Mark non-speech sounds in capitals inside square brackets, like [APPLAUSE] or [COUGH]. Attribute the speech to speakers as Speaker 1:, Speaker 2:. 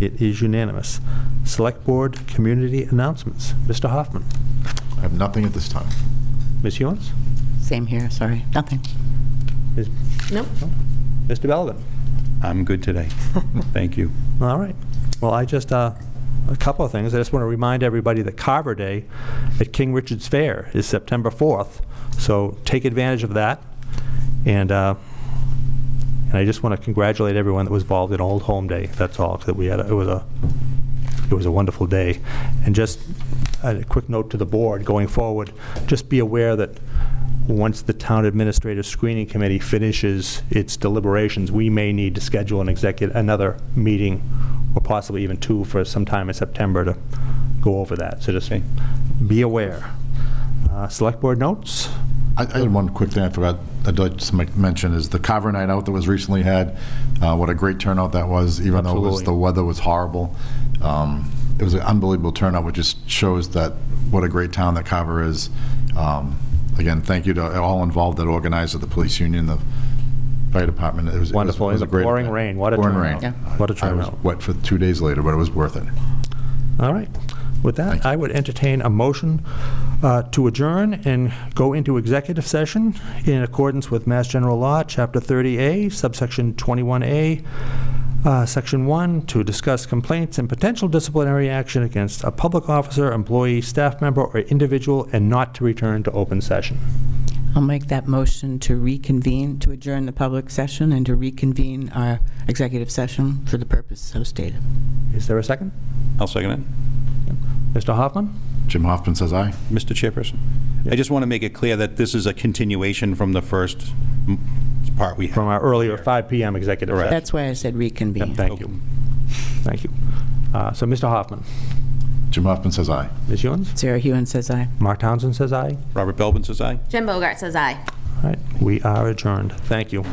Speaker 1: It is unanimous. Select Board Community Announcements. Mr. Hoffman.
Speaker 2: I have nothing at this time.
Speaker 1: Ms. Hewens?
Speaker 3: Same here, sorry. Nothing.
Speaker 1: Ms.
Speaker 4: Nope.
Speaker 1: Mr. Belvin?
Speaker 5: I'm
Speaker 1: [LAUGHS]
Speaker 5: good today. Thank you.
Speaker 1: All right. Well, I just, uh, a couple of things. I just want to remind everybody that Carver Day at King Richard's Fair is September 4th, so take advantage of that. And, uh, and I just want to congratulate everyone that was involved in Old Home Day, that's all, 'cause we had, a- it was a, it was a wonderful day. And just a quick note to the board going forward, just be aware that once the Town Administrative Screening Committee finishes its deliberations, we may need to schedule an executive, another meeting, or possibly even two for sometime in September to go over that. So just
Speaker 5: Okay.
Speaker 1: be aware. Uh, Select Board notes?
Speaker 2: I I had one quick thing I forgot, I'd like to make- mention, is the Carver Night Out that was recently had, uh, what a great turnout that was, even though it was-
Speaker 1: Absolutely.
Speaker 2: the weather was horrible. Um, It was an unbelievable turnout, which just shows that, what a great town that Carver is. Um, Again, thank you to all involved that organized, it, the police union, the fire department. It was- it was-
Speaker 1: Wonderful.
Speaker 2: it was
Speaker 1: In
Speaker 2: a
Speaker 1: the
Speaker 2: great
Speaker 1: pouring
Speaker 2: event.
Speaker 1: rain, what a
Speaker 2: Pouring
Speaker 1: turnout.
Speaker 2: rain.
Speaker 1: Yeah. What a
Speaker 2: I was
Speaker 1: turnout.
Speaker 2: wet for two days later, but it was worth it.
Speaker 1: All right. With
Speaker 2: Thank
Speaker 1: that,
Speaker 2: you.
Speaker 1: I would entertain a motion uh, to adjourn and go into executive session in accordance with Mass General Law, Chapter 30A, subsection 21A, uh, Section 1, to discuss complaints and potential disciplinary action against a public officer, employee, staff member, or individual, and not to return to open session.
Speaker 3: I'll make that motion to reconvene, to adjourn the public session and to reconvene our executive session for the purpose so stated.
Speaker 1: Is there a second?
Speaker 5: I'll second it.
Speaker 1: Mr. Hoffman?
Speaker 2: Jim Hoffman says aye.
Speaker 5: Mr. Chairperson, I just want to make it clear that this is a continuation from the first mm, part we had.
Speaker 1: From our earlier 5 PM executive
Speaker 5: Correct.
Speaker 1: session.
Speaker 3: That's why I said reconvene.
Speaker 1: Thank you. Thank you. Uh, So, Mr. Hoffman,
Speaker 2: Jim Hoffman says aye.
Speaker 1: Ms. Ewens?
Speaker 3: Sarah Hewen says aye.
Speaker 1: Mark Townsend says aye.
Speaker 5: Robert Belvin says aye.
Speaker 4: Jim Bogart says aye.
Speaker 1: All right, we are adjourned. Thank you.